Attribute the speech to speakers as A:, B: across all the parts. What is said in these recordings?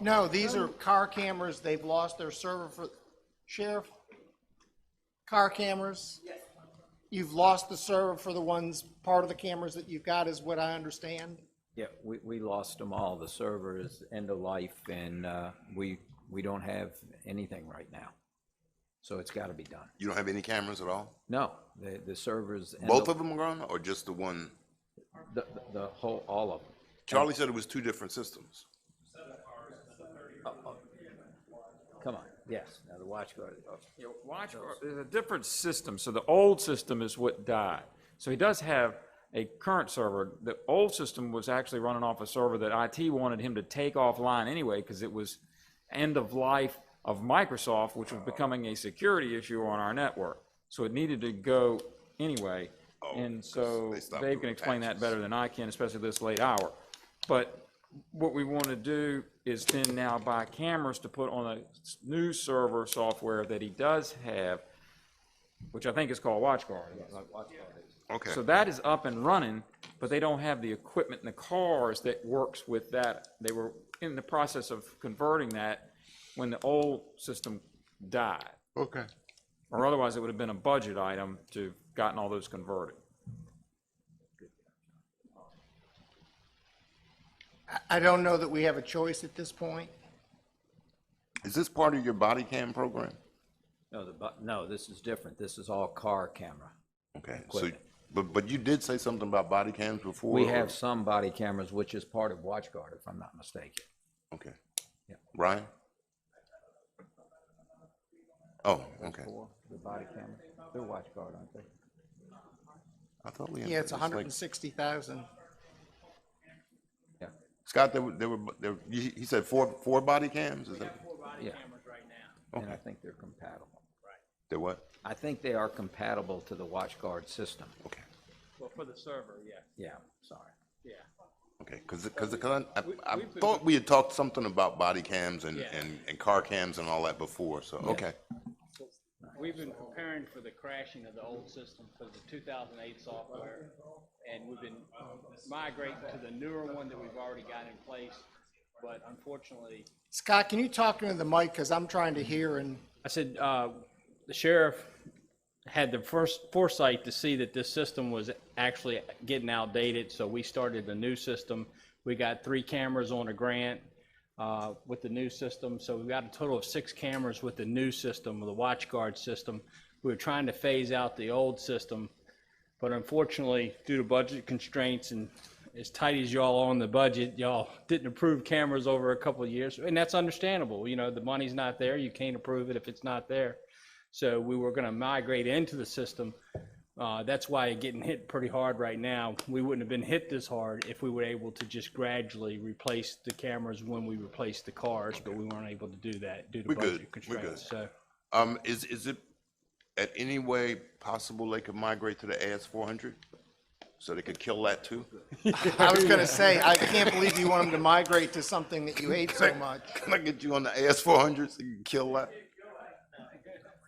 A: No, these are car cameras. They've lost their server for, Sheriff? Car cameras? Yes. You've lost the server for the ones, part of the cameras that you've got is what I understand?
B: Yeah, we, we lost them all. The server is end of life and, uh, we, we don't have anything right now. So it's gotta be done.
C: You don't have any cameras at all?
B: No, the, the servers. end
C: Both of them are gone or just the one?
B: The, the- the whole, all of them.
C: Charlie said it was two different systems.
B: Come on, yes, now the watch guard. oh,
D: Yeah, watch, there's a different system, so the old system is what died. So he does have a current server. The old system was actually running off a server that IT wanted him to take offline anyway, because it was end of life of Microsoft, which was becoming a security issue on our network. So it needed to go anyway, and so
C: Oh, they stopped
D: Dave
C: doing
D: can explain that
C: patches.
D: better than I can, especially this late hour. But what we want to do is then now buy cameras to put on a s- new server software that he does have, which I think is called WatchGuard.
B: like watch guard is-
C: Okay.
D: So that is up and running, but they don't have the equipment in the cars that works with that. They were in the process of converting that when the old system died.
C: Okay.
D: Or otherwise, it would have been a budget item to gotten all those converted.
A: I, I don't know that we have a choice at this point.
C: Is this part of your body cam program?
B: No, the, bu- no, this is different. This is all car camera.
C: Okay. So,
B: Equipment.
C: but, but you did say something about body cams before?
B: We
C: or-
B: have some body cameras, which is part of watch guard, if I'm not mistaken.
C: Okay.
B: Yeah.
C: Ryan? Oh, okay.
B: Four, the body camera, they're watch guard, aren't they?
C: I thought we had.
A: Yeah, it's
C: like-
A: hundred and sixty thousand.
B: Yeah.
C: Scott, there were, there were, there, were- he, he said four, four body cams? Is that,
E: four body
B: Yeah.
E: cameras right now.
B: And I think they're compatible.
C: they what?
B: I think they are compatible to the watch guard system.
C: Okay.
E: Well, for the server, yes,
B: Yeah, sorry.
E: yeah.
C: Okay, because, because, because I,
E: we-
C: I
E: we've been-
C: thought we had talked something about body cams and,
E: Yeah.
C: and, and car cams and all that before, so, okay.
E: We've been preparing for the crashing of the old system for the two thousand eight software. And we've been migrating to the newer one that we've already got in place, but unfortunately,
A: Scott, can you talk into the mic, because I'm trying to hear and,
E: I said, uh, the sheriff had the first foresight to see that this system was actually getting outdated, so we started a new system. We got three cameras on a grant uh, with the new system, so we've got a total of six cameras with the new system, with the watch guard system. We were trying to phase out the old system, but unfortunately, due to budget constraints and as tight as y'all are on the budget, y'all didn't approve cameras over a couple of years, and that's understandable. You know, the money's not there. You can't approve it if it's not there. So we were going to migrate into the system. Uh, that's why it's getting hit pretty hard right now. We wouldn't have been hit this hard if we were able to just gradually replace the cameras when we replaced the cars, but we weren't able to do that due to
C: We're good.
E: budget
C: We're good.
E: constraints. So.
C: Um, is, is it at any way possible they could migrate to the AS four hundred? So they could kill that too?
A: I was gonna say, I can't believe you want them to migrate to something that you hate so much.
C: Can I get you on the AS four hundred so you can kill that?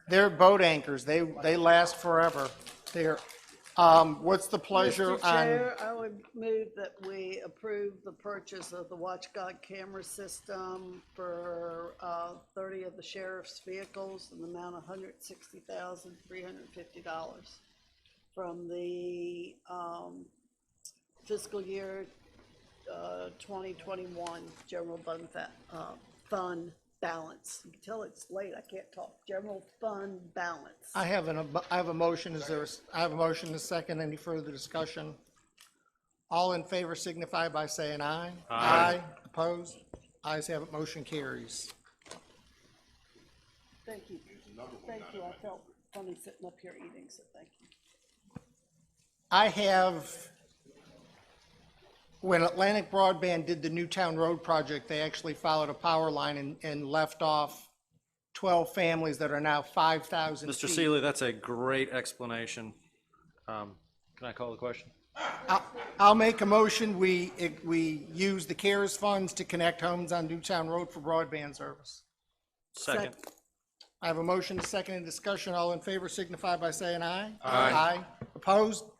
A: They're boat anchors. They, they last forever. They're, um, what's the pleasure Um,
F: Mr.
A: on,
F: Chair, I would move that we approve the purchase of the WatchGuard camera system for uh, 30 of the sheriff's vehicles in the amount of $160,350 from the um, fiscal year uh, 2021 general fund, fa- uh, fund balance. You can tell it's late, I can't talk. General fund balance.
A: I have an, ab- I have a motion. Is there, a s- I have a motion to second. Any further discussion? All in favor signify by saying aye. Aye. Opposed? Ayes have it. Motion carries.
F: Thank you. Thank you. I felt funny sitting up here eating, so thank you.
A: I have, when Atlantic Broadband did the Newtown Road project, they actually followed a power line and, and left off 12 families that are now 5,000
G: Mr.
A: feet.
G: Seeley, that's a great explanation. Um,
E: Can I call the question?
A: I'll make a motion, we, it- we use the CARES funds to connect homes on Newtown Road for broadband service.
G: Second.
A: I have a motion, a second, and discussion. All in favor signify by saying aye. Aye. Opposed?